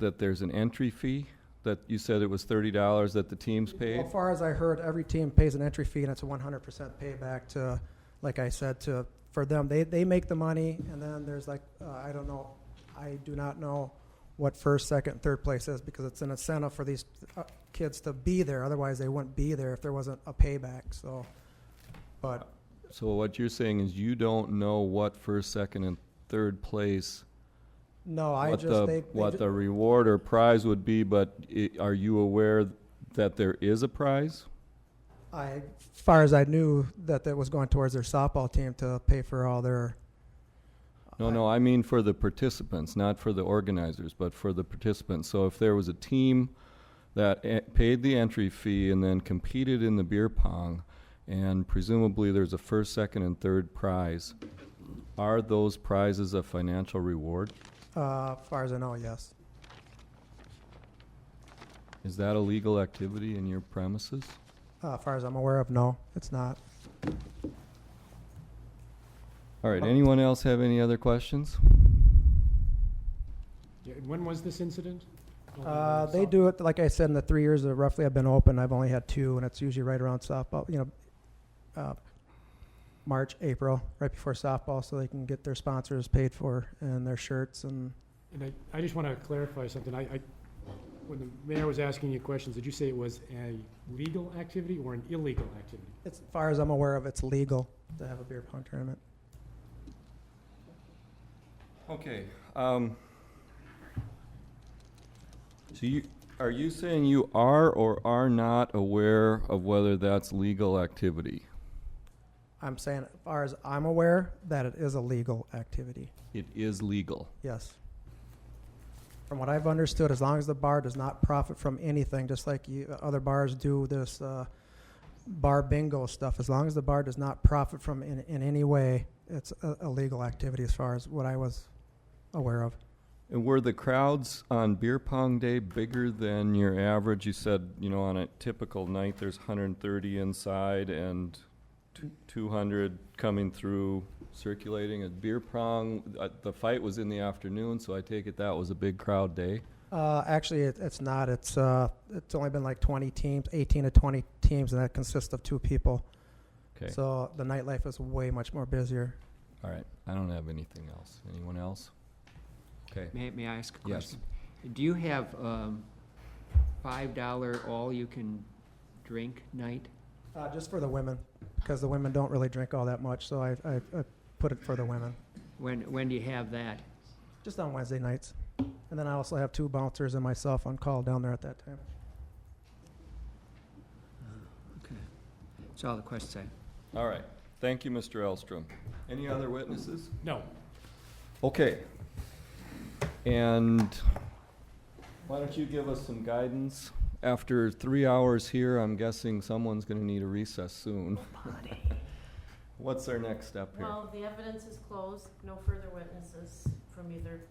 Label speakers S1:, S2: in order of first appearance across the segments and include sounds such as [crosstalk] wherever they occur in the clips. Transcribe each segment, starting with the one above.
S1: that there's an entry fee, that you said it was thirty dollars that the teams paid?
S2: As far as I heard, every team pays an entry fee, and it's a 100% payback to, like I said, to for them. They they make the money, and then there's like uh, I don't know, I do not know what first, second, third place is because it's an incentive for these uh, kids to be there. Otherwise, they wouldn't be there if there wasn't a payback. So, but
S1: So what you're saying is you don't know what first, second, and third place,
S2: no, I
S1: what
S2: just
S1: the,
S2: they, they
S1: what
S2: ju-
S1: the reward or prize would be, but i- are you aware that there is a prize?
S2: I as far as I knew that that was going towards their softball team to pay for all their.
S1: No, no, I mean for the participants, not for the organizers, but for the participants. So if there was a team that e- paid the entry fee and then competed in the beer pong, and presumably there's a first, second, and third prize, are those prizes a financial reward?
S2: Uh, as far as I know, yes.
S1: Is that a legal activity in your premises?
S2: Uh, as far as I'm aware of, no, it's not.
S1: All right, anyone else have any other questions?
S3: Yeah, and When was this incident?
S2: Uh, they do it, like I said, in the three years that roughly I've been open, I've only had two, and it's usually right around softball, you know, uh, March, April, right before softball, so they can get their sponsors paid for and their shirts and
S3: And I, I just want to clarify something. I, I, when the mayor was asking you questions, did you say it was a legal activity or an illegal activity?
S2: it's, as far as I'm aware of, it's legal to have a beer pong tournament.
S1: Okay, um, so you, are you saying you are or are not aware of whether that's legal activity?
S2: I'm saying, as far as I'm aware, that it is a legal activity.
S1: It is legal.
S2: Yes. From what I've understood, as long as the bar does not profit from anything, just like you, other bars do this uh, bar bingo stuff, as long as the bar does not profit from in, in any way, it's a, a legal activity as far as what I was aware of.
S1: And were the crowds on beer pong day bigger than your average? You said, you know, on a typical night, there's hundred and thirty inside and two hundred coming through circulating. At beer pong, uh, the fight was in the afternoon, so I take it that was a big crowd day.
S2: Uh, actually, it, it's not. It's uh, it's only been like 20 teams, 18 to 20 teams, and that consists of two people.
S1: Okay,
S2: So the nightlife is way much more busier.
S1: all right. I don't have anything else. Anyone else? Okay.
S4: May, may I ask a
S1: Yes.
S4: question? Do you have, um, five dollar all-you-can-drink night?
S2: Uh, just for the women, because the women don't really drink all that much, so I, I, I put it for the women.
S4: When, when do you have that?
S2: Just on Wednesday nights. And then I also have two bouncers and myself on call down there at that time.
S4: Okay. That's all the questions I have.
S1: All right. Thank you, Mr. Elstrom. Any other witnesses?
S3: No.
S1: Okay. And why don't you give us some guidance? After three hours here, I'm guessing someone's gonna need a recess soon.
S4: Oh,
S1: [laughs] What's our next step here?
S5: Well, the evidence is closed, no further witnesses from either,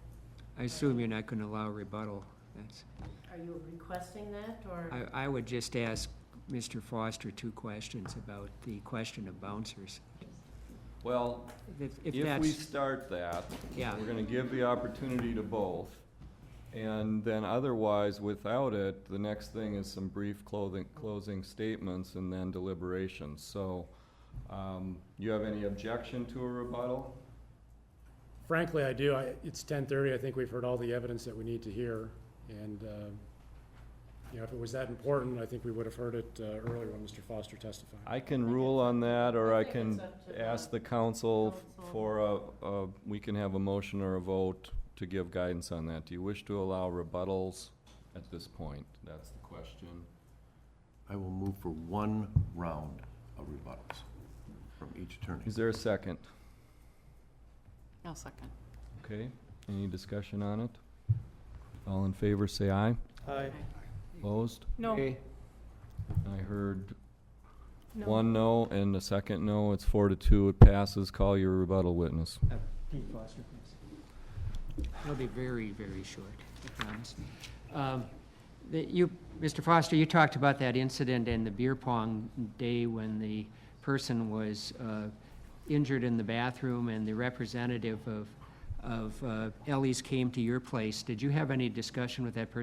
S4: I assume you're not gonna allow rebuttal. That's,
S5: are you requesting that, or?
S4: I, I would just ask Mr. Foster two questions about the question of bouncers.
S1: Well,
S4: If, if
S1: if we
S4: that's,
S1: start that,
S4: yeah,
S1: we're gonna give the opportunity to both. And then otherwise, without it, the next thing is some brief clothing, closing statements and then deliberations. So, um, you have any objection to a rebuttal?
S3: Frankly, I do. I, it's ten thirty. I think we've heard all the evidence that we need to hear. And, um, you know, if it was that important, I think we would have heard it, uh, earlier when Mr. Foster testified.
S1: I can rule on that, or I
S5: I think it's
S1: can
S5: up to the
S1: ask the council f-
S5: council.
S1: for a, a, we can have a motion or a vote to give guidance on that. Do you wish to allow rebuttals at this point? That's the question.
S6: I will move for one round of rebuttals from each attorney.
S1: Is there a second?
S5: No, second.
S1: Okay, any discussion on it? All in favor, say aye.
S2: Aye.
S1: Opposed?
S5: No,
S1: I heard
S5: no.
S1: one no and a second no. It's four to two. It passes. Call your rebuttal witness.
S4: Dean Foster, please. It'll be very, very short, I promise. Um, the- You, Mr. Foster, you talked about that incident in the beer pong day when the person was uh, injured in the bathroom and the representative of of uh, Ellie's came to your place, did you have any discussion with that person